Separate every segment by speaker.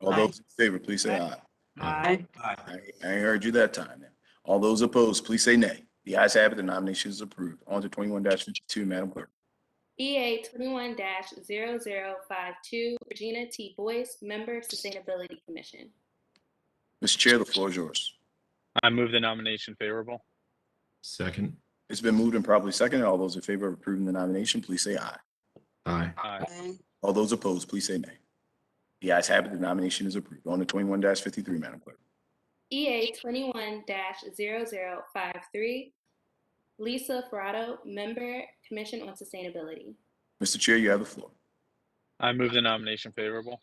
Speaker 1: All those in favor, please say aye.
Speaker 2: Aye.
Speaker 1: I I ain't heard you that time. now. All those opposed, please say nay. The ayes have it, the nomination is approved. On to twenty-one fifty-two, Madam Clerk.
Speaker 3: EA twenty-one 52 Regina T. Boyce, Member Sustainability Commission.
Speaker 1: Mr. Chair, the floor is yours.
Speaker 4: I move the nomination favorable.
Speaker 5: Second.
Speaker 1: It's been moved and properly seconded. All those in favor of approving the nomination, please say aye.
Speaker 5: Aye.
Speaker 4: Aye.
Speaker 1: All those opposed, please say nay. The ayes have it, the nomination is approved. On to twenty-one fifty-three, Madam Clerk.
Speaker 3: EA twenty-one 53 Lisa Ferrato, Member Commission on Sustainability.
Speaker 1: Mr. Chair, you have the floor.
Speaker 4: I move the nomination favorable.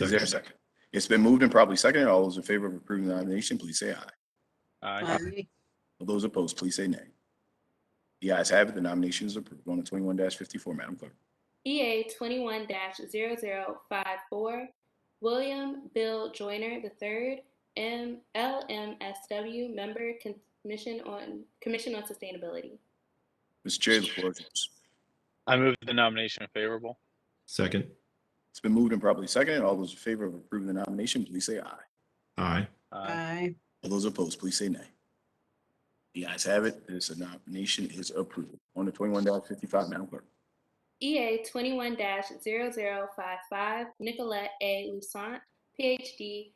Speaker 1: Is there a second? It's been moved and properly seconded. All those in favor of approving the nomination, please say aye.
Speaker 4: Aye.
Speaker 1: All those opposed, please say nay. The ayes have it, the nomination is approved. On to twenty-one fifty-four, Madam Clerk.
Speaker 3: EA twenty-one 54 William Bill Joyner III, M, LMSW, Member Con- Commission on, Commission on Sustainability.
Speaker 1: Mr. Chair, the floor is yours.
Speaker 4: I move the nomination favorable.
Speaker 5: Second.
Speaker 1: It's been moved and properly seconded. All those in favor of approving the nomination, please say aye.
Speaker 5: Aye.
Speaker 4: Aye.
Speaker 1: All those opposed, please say nay. The ayes have it. This nomination is approved. On to twenty-one fifty-five, Madam Clerk.
Speaker 3: EA E twenty-one 55 Nicolette A. Lusant, PhD,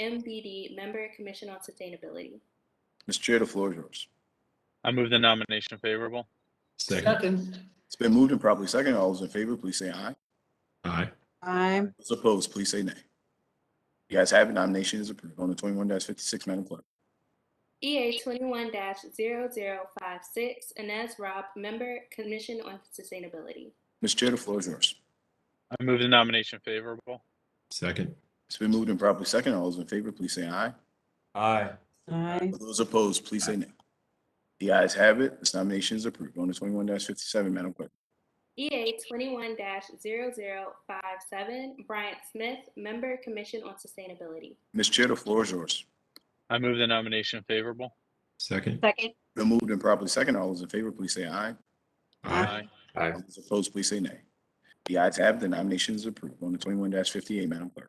Speaker 3: MBD, Member Commission on Sustainability.
Speaker 1: Mr. Chair, the floor is yours.
Speaker 4: I move the nomination favorable.
Speaker 5: Second.
Speaker 1: It's been moved and properly seconded. All those in favor, please say aye.
Speaker 5: Aye.
Speaker 2: Aye.
Speaker 1: Those opposed, please say nay. The ayes have it. Nomination is approved. On to twenty-one fifty-six, Madam Clerk.
Speaker 3: EA E twenty-one 56 Inez Robb, Member Commission on Sustainability.
Speaker 1: Mr. Chair, the floor is yours.
Speaker 4: I move the nomination favorable.
Speaker 5: Second.
Speaker 1: It's been moved and properly seconded. All those in favor, please say aye.
Speaker 6: Aye.
Speaker 2: Aye.
Speaker 1: All those opposed, please say nay. The ayes have it. This nomination is approved. On to twenty-one fifty-seven, Madam Clerk.
Speaker 3: EA E twenty-one 57 Bryant Smith, Member Commission on Sustainability.
Speaker 1: Ms. Chair, the floor is yours.
Speaker 4: I move the nomination favorable.
Speaker 5: Second.
Speaker 2: Second.
Speaker 1: Been moved and properly second. All those in favor, please say aye.
Speaker 5: Aye.
Speaker 1: All those opposed, please say nay. The ayes have it. The nomination is approved. On to twenty-one fifty-eight, Madam Clerk.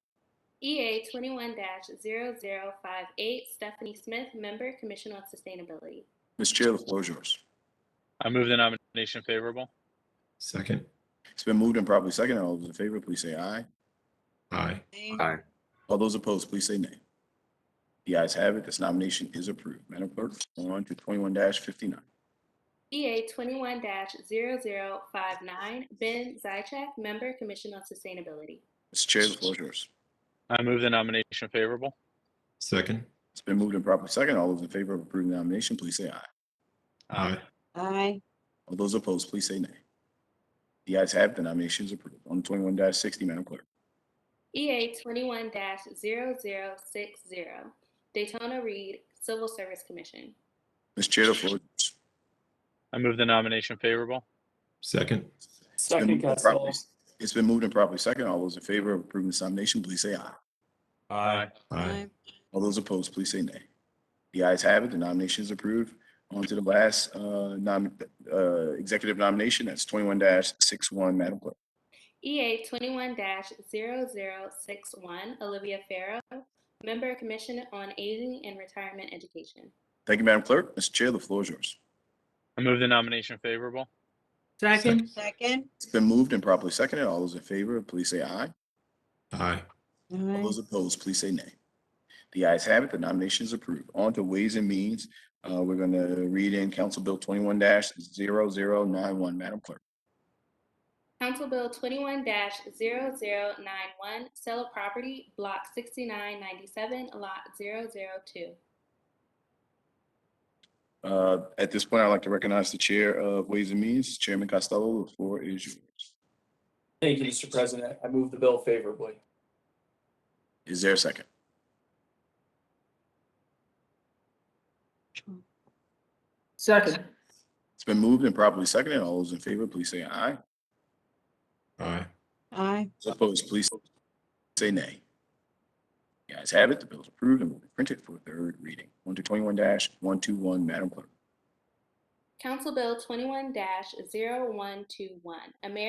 Speaker 3: EA E twenty-one 58 Stephanie Smith, Member Commission on Sustainability.
Speaker 1: Ms. Chair, the floor is yours.
Speaker 4: I move the nomination favorable.
Speaker 5: Second.
Speaker 1: It's been moved and properly second. All those in favor, please say aye.
Speaker 5: Aye.
Speaker 6: Aye.
Speaker 1: All those opposed, please say nay. The ayes have it. This nomination is approved. Madam Clerk, on to twenty-one fifty-nine.
Speaker 3: EA twenty-one 59 Ben Zychak, Member Commission on Sustainability.
Speaker 1: Mr. Chair, the floor is yours.
Speaker 4: I move the nomination favorable.
Speaker 5: Second.
Speaker 1: It's been moved and properly second. All those in favor of approving the nomination, please say aye.
Speaker 5: Aye.
Speaker 2: Aye.
Speaker 1: All those opposed, please say nay. The ayes have it. The nomination is approved. On to twenty-one sixty, Madam Clerk.
Speaker 3: EA twenty-one 60 Daytona Reed, Civil Service Commission.
Speaker 1: Mr. Chair, the floor is yours.
Speaker 4: I move the nomination favorable.
Speaker 5: Second.
Speaker 1: It's been moved and properly- It's been moved and properly second. All those in favor of approving this nomination, please say aye.
Speaker 6: Aye.
Speaker 5: Aye.
Speaker 1: All those opposed, please say nay. The ayes have it. The nomination is approved. On to the last uh, nom- uh, executive nomination. That's twenty-one six-one, Madam Clerk.
Speaker 3: EA twenty-one 61 Olivia Farrow, Member Commission on Aging and Retirement Education.
Speaker 1: Thank you, Madam Clerk. Mr. Chair, the floor is yours.
Speaker 4: I move the nomination favorable.
Speaker 5: Second.
Speaker 2: Second.
Speaker 1: It's been moved and properly seconded. All those in favor, please say aye.
Speaker 5: Aye.
Speaker 1: All
Speaker 2: Aye.
Speaker 1: those opposed, please say nay. The ayes have it, the nomination is approved. On to Ways and Means, uh, we're going to read in Council Bill twenty-one 91 Madam Clerk.
Speaker 3: Council Bill twenty-one 91 Sale of Property, Block sixty-nine ninety-seven, Lot 002.
Speaker 1: Uh, At this point, I'd like to recognize the Chair of Ways and Means, Chairman Costello, the floor is yours.
Speaker 7: Thank you, Mr. President. I move the bill favorably.
Speaker 1: Is there a second?
Speaker 8: Second.
Speaker 1: It's been moved and properly seconded. All those in favor, please say aye.
Speaker 5: Aye.
Speaker 2: Aye.
Speaker 1: Opposed, please say nay. The ayes have it, the bill is approved and will be printed for third reading. On to twenty-one one two one, Madam Clerk.
Speaker 3: Council Bill twenty-one 121 American